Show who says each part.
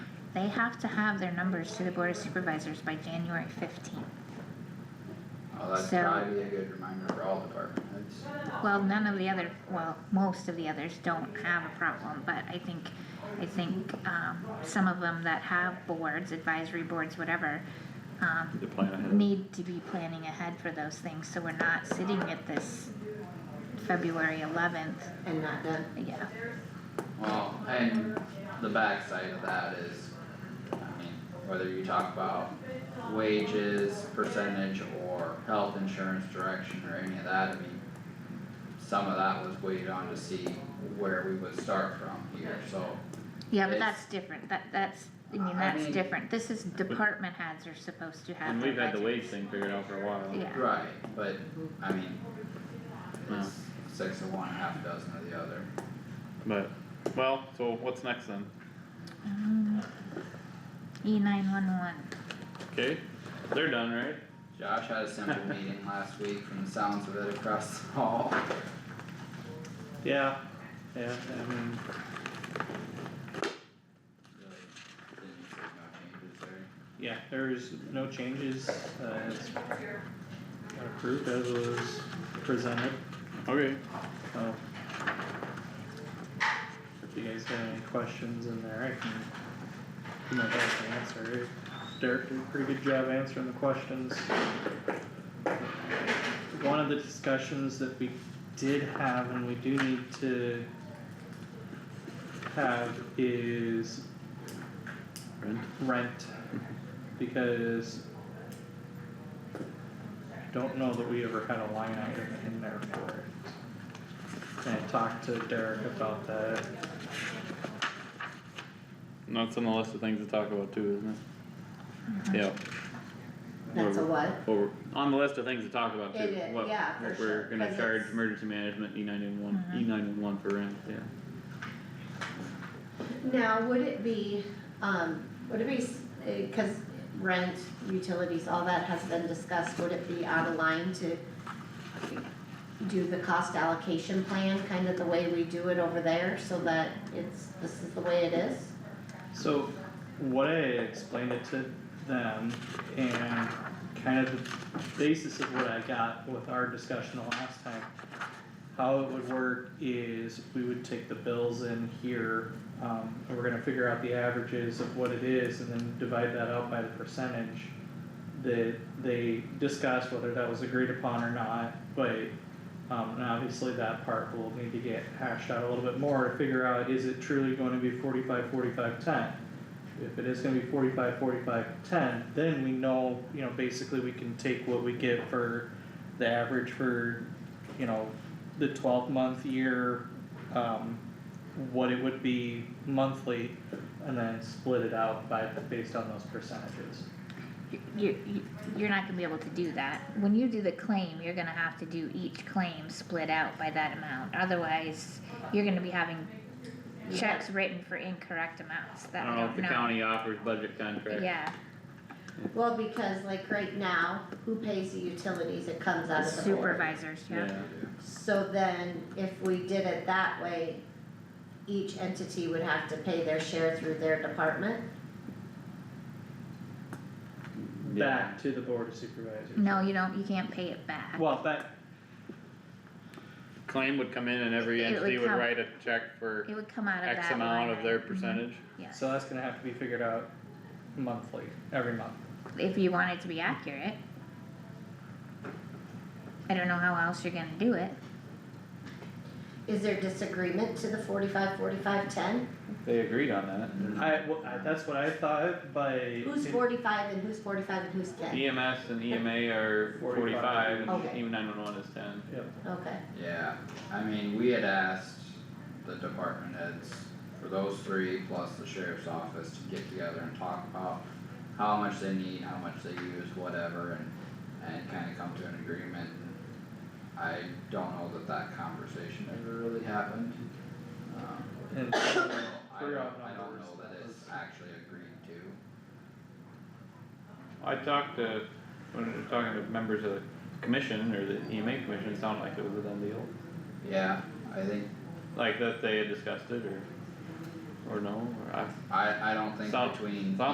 Speaker 1: They have to have their numbers to the board of supervisors by January fifteenth.
Speaker 2: Well, that's
Speaker 1: So-
Speaker 2: Oh, probably a good reminder for all department heads.
Speaker 1: Well, none of the other, well, most of the others don't have a problem, but I think, I think, um, some of them that have boards, advisory boards, whatever, um,
Speaker 3: The plan ahead.
Speaker 1: need to be planning ahead for those things, so we're not sitting at this February eleventh,
Speaker 4: and not done.
Speaker 1: yeah.
Speaker 2: Well, and the backside of that is, I mean, whether you talk about wages, percentage, or health insurance direction or any of that, I mean, some of that was weighed on to see where we would start from here, so,
Speaker 1: Yeah, but
Speaker 2: It's-
Speaker 1: that's different, that, that's, I
Speaker 2: I
Speaker 1: mean, that's
Speaker 2: mean-
Speaker 1: different, this is department heads are supposed to have.
Speaker 3: And we've
Speaker 1: their
Speaker 3: had the
Speaker 1: budget.
Speaker 3: wage thing figured out for a while.
Speaker 1: Yeah,
Speaker 2: right, but, I mean, it's six of one, half dozen of the other.
Speaker 3: But, well, so what's next then?
Speaker 1: E nine one one,
Speaker 3: Okay, they're done, right?
Speaker 2: Josh had a simple meeting last week from the sounds of it across the hall.
Speaker 3: Yeah, yeah, I mean.
Speaker 2: Really Didn't see no changes there.
Speaker 5: Yeah, there is no changes, uh, it's approved as was presented,
Speaker 3: Okay,
Speaker 5: so. Uh, If you guys have any questions in there, I can, do my best to answer. Derek did a pretty good job answering the questions. One of the discussions that we did have and we do need to have is
Speaker 3: Brent,
Speaker 5: rent because I don't know that we ever had a line item in there for it. And I talked to Derek about that.
Speaker 3: and that's on the list of things to talk about too,
Speaker 1: Mm-hmm.
Speaker 3: isn't it? Yeah.
Speaker 4: That's a what?
Speaker 3: Well, we're- on the list of things to talk about too.
Speaker 4: It is,
Speaker 3: what-
Speaker 4: yeah, for
Speaker 3: What we're
Speaker 4: sure,
Speaker 3: gonna
Speaker 4: 'cause
Speaker 3: charge
Speaker 4: it's-
Speaker 3: emergency management, E nine one,
Speaker 1: Mm-hmm.
Speaker 3: E nine one for rent, yeah.
Speaker 4: Now, would it be, um, would it be, s- uh, cause rent, utilities, all that has been discussed, would it be out of line to do the cost allocation plan, kind of the way we do it over there, so that it's, this is the way it is?
Speaker 5: So what I explained it to them and kind of the basis of what I got with our discussion the last time. How it would work is we would take the bills in here, um, and we're gonna figure out the averages of what it is and then divide that out by the percentage. That they discussed whether that was agreed upon or not, but um, and obviously that part will need to get hashed out a little bit more to figure out, is it truly going to be forty-five, forty-five, ten? If it is gonna be forty-five, forty-five, ten, then we know, you know, basically we can take what we get for the average for, you know, the twelve-month year, um, what it would be monthly, and then split it out by, based on those percentages.
Speaker 1: you, you, you're not gonna be able to do that, when you do the claim, you're gonna have to do each claim split out by that amount, otherwise, you're gonna be having checks written for incorrect amounts
Speaker 3: I
Speaker 1: that we
Speaker 3: don't know
Speaker 1: don't
Speaker 3: if Oh, the
Speaker 1: know,
Speaker 3: county offers budget contracts.
Speaker 1: yeah,
Speaker 4: Well, because like right now, who pays the utilities, it comes out of the board.
Speaker 1: supervisors, yeah,
Speaker 3: Yeah,
Speaker 4: So then, if we did it that way, each entity would have to pay their share through their department?
Speaker 3: yeah,
Speaker 5: Back to the board of supervisors.
Speaker 1: no, you don't, you can't pay it back.
Speaker 5: Well, back,
Speaker 3: claim would come in and every
Speaker 1: It would
Speaker 3: entity would
Speaker 1: come-
Speaker 3: write a check for
Speaker 1: It would come out of that
Speaker 3: X
Speaker 1: line
Speaker 3: amount of their
Speaker 1: item.
Speaker 3: percentage.
Speaker 1: Yeah,
Speaker 5: So that's gonna have to be figured out monthly, every month.
Speaker 1: if you want it to be accurate. I don't know how else you're gonna do it,
Speaker 4: Is there disagreement to the forty-five, forty-five, ten?
Speaker 3: They agreed on that.
Speaker 5: I, well, I- that's what I thought, but.
Speaker 4: Who's
Speaker 5: it-
Speaker 4: forty-five and who's forty-five and who's ten?
Speaker 3: EMS E and EMA are
Speaker 5: 45,
Speaker 3: forty-five, and
Speaker 4: Okay.
Speaker 3: even nine-one-one is ten.
Speaker 5: Yep,
Speaker 4: Okay,
Speaker 2: Yeah, I mean, we had asked the department heads for those three plus the sheriff's office to get together and talk about how much they need, how much they use, whatever, and, and kinda come to an agreement. I don't know that that conversation ever really happened. Um,
Speaker 5: and
Speaker 2: so I don't,
Speaker 5: Clear out
Speaker 2: I don't
Speaker 5: numbers,
Speaker 2: know that
Speaker 5: that
Speaker 2: it's
Speaker 5: was-
Speaker 2: actually agreed to.
Speaker 3: I talked to, when we were talking to members of the commission or the EMA commission, it sounded like it was a done deal.
Speaker 2: Yeah, I think
Speaker 3: Like that they had discussed it or, or no, or I,
Speaker 2: I, I don't think
Speaker 3: Sound-
Speaker 2: between
Speaker 3: sound